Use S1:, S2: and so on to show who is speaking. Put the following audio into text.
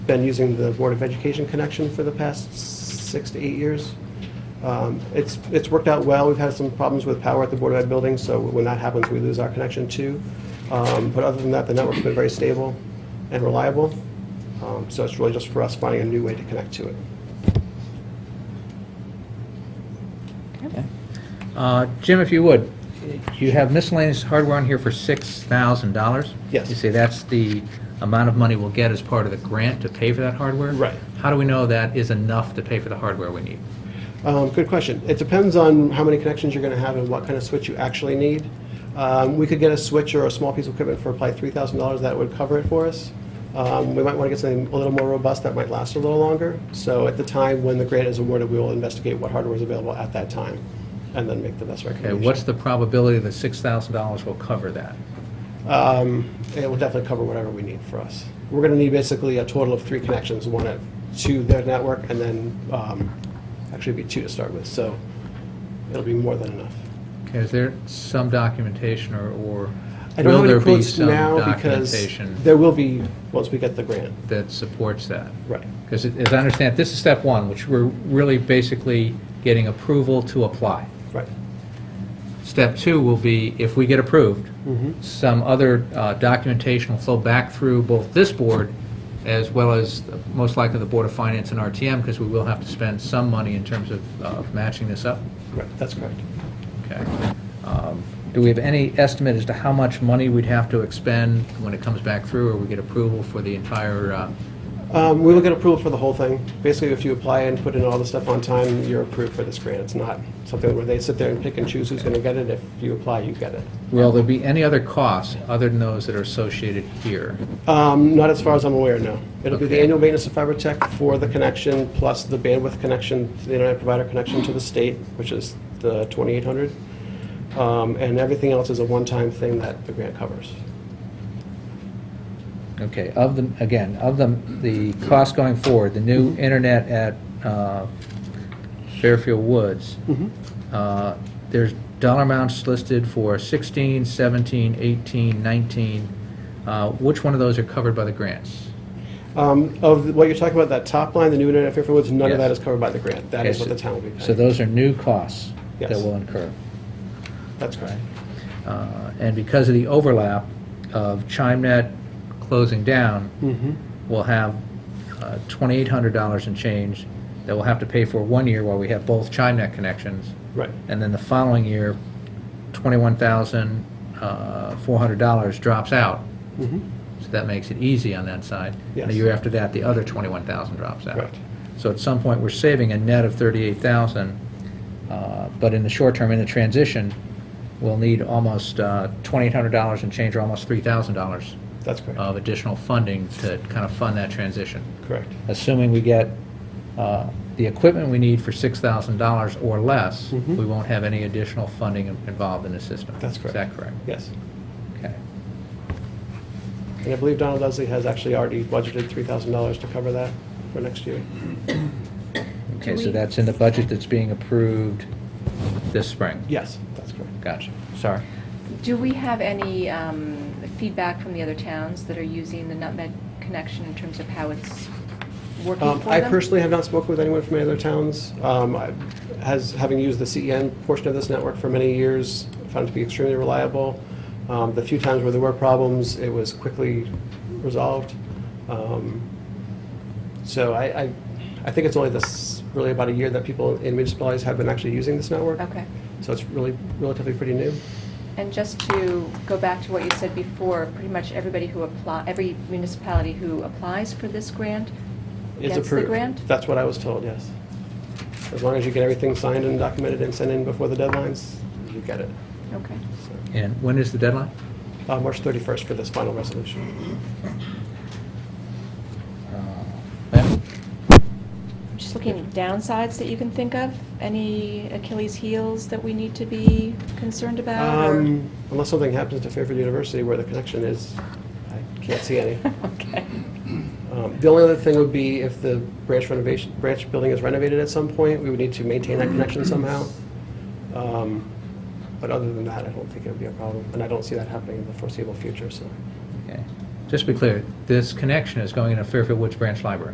S1: been using the Board of Education connection for the past six to eight years. Um, It's, it's worked out well. We've had some problems with power at the Board of Ed building, so when that happens, we lose our connection too. Um, But other than that, the network's been very stable and reliable. Um, So it's really just for us finding a new way to connect to it.
S2: Uh, Jim, if you would, you have miscellaneous hardware on here for $6,000?
S1: Yes.
S2: You say that's the amount of money we'll get as part of the grant to pay for that hardware?
S1: Right.
S2: How do we know that is enough to pay for the hardware we need?
S1: Um, Good question. It depends on how many connections you're going to have and what kind of switch you actually need. Um, We could get a switch or a small piece of equipment for probably $3,000 that would cover it for us. Um, We might want to get something a little more robust that might last a little longer. So at the time when the grant is awarded, we will investigate what hardware is available at that time and then make the best
S2: Okay,
S1: recommendation.
S2: what's the probability that $6,000 will cover that?
S1: Um, It will definitely cover whatever we need for us. We're going to need basically a total of three connections, one at- to their network and then um, actually it'd be two to start with. So it'll be more than enough.
S2: Okay, is there some documentation or or
S1: I don't
S2: will
S1: have
S2: there
S1: any
S2: be
S1: quotes
S2: some
S1: now because
S2: documentation
S1: there will be, once we get the grant.
S2: that supports that?
S1: Right.
S2: Because as I understand, it, this is step one, which we're really basically getting approval to apply.
S1: Right.
S2: Step two will be, if we get approved, some other uh, documentation will flow back through both this board as well as the- most likely the Board of Finance and RTM, because we will have to spend some money in terms of, of matching this up.
S1: Right, that's correct.
S2: Okay. Um, Do we have any estimate as to how much money we'd have to expend when it comes back through, or we get approval for the entire, uh,
S1: Um, We will get approval for the whole thing. Basically, if you apply and put in all the stuff on time, you're approved for this grant. It's not something where they sit there and pick and choose who's going to get it. If you apply, you get it.
S2: will there be any other costs other than those that are associated here?
S1: Um, Not as far as I'm aware, no. It'll be the
S2: Okay.
S1: annual maintenance of fiber tech for the connection, plus the bandwidth connection, the internet provider connection to the state, which is the 2,800. Um, And everything else is a one-time thing that the grant covers.
S2: Okay, of the, again, of the, the cost going forward, the new internet at uh, Fairfield Woods,
S1: Mm-hmm.
S2: uh, there's dollar amounts listed for 16, 17, 18, 19. Uh, Which one of those are covered by the grants?
S1: Um, Of what you're talking about, that top line, the new internet at Fairfield Woods, none of
S2: Yes.
S1: that is covered by the grant. That is what the town will be paying.
S2: So those are new costs that
S1: Yes.
S2: will incur.
S1: That's correct.
S2: Uh, And because of the overlap of ChimeNet closing down, we'll have uh, $2,800 in change that we'll have to pay for one year while we have both ChimeNet connections.
S1: Right.
S2: And then the following year, uh, $21,400 drops out. So that makes it easy on that side. And the
S1: Mm-hmm. Yes.
S2: year after that, the other 21,000 drops out.
S1: Right.
S2: So at some point, we're saving a net of 38,000, uh, but in the short term, in the transition, we'll need almost uh, $2,800 and change, or almost $3,000
S1: That's correct.
S2: of additional funding to kind of fund that transition,
S1: Correct.
S2: assuming we get uh, the equipment we need for $6,000 or less,
S1: Mhm.
S2: we won't have any additional funding in- involved in the system.
S1: That's correct.
S2: Is that correct?
S1: Yes.
S2: Okay.
S1: And I believe Donald Leslie has actually already budgeted $3,000 to cover that for next year.
S2: Okay,
S3: Do
S2: so
S3: we-
S2: that's in the budget that's being approved this spring?
S1: Yes, that's correct.
S2: Gotcha. Sorry.
S3: Do we have any um, feedback from the other towns that are using the Nutmeg connection in terms of how it's working for
S1: Um,
S3: them?
S1: I personally have not spoken with anyone from any other towns. Um, I- Has, having used the CEN portion of this network for many years, found it to be extremely reliable. Um, The few times where there were problems, it was quickly resolved. Um, So I, I- I think it's only this, really about a year that people in municipalities have been actually using this network.
S3: Okay.
S1: So it's really relatively pretty new.
S3: And just to go back to what you said before, pretty much everybody who apply, every municipality who applies for this grant
S1: Is
S3: gets the
S1: approved.
S3: grant?
S1: That's what I was told, yes. As long as you get everything signed and documented and sent in before the deadlines, you get it.
S3: Okay.
S1: So-
S2: And when is the deadline?
S1: Uh, March 31st for this final resolution. Uh,
S2: Ma'am?
S3: Just looking at downsides that you can think of, any Achilles heels that we need to be concerned about? or-
S1: Um, Unless something happens to Fairfield University where the connection is, I can't see any.
S3: Okay.
S1: Um, The only other thing would be if the branch renovation, branch building is renovated at some point, we would need to maintain that connection somehow. Um, But other than that, I don't think it would be a problem, and I don't see that happening in the foreseeable future, so.
S2: Okay. just to be clear, this connection is going into Fairfield Woods Branch Library.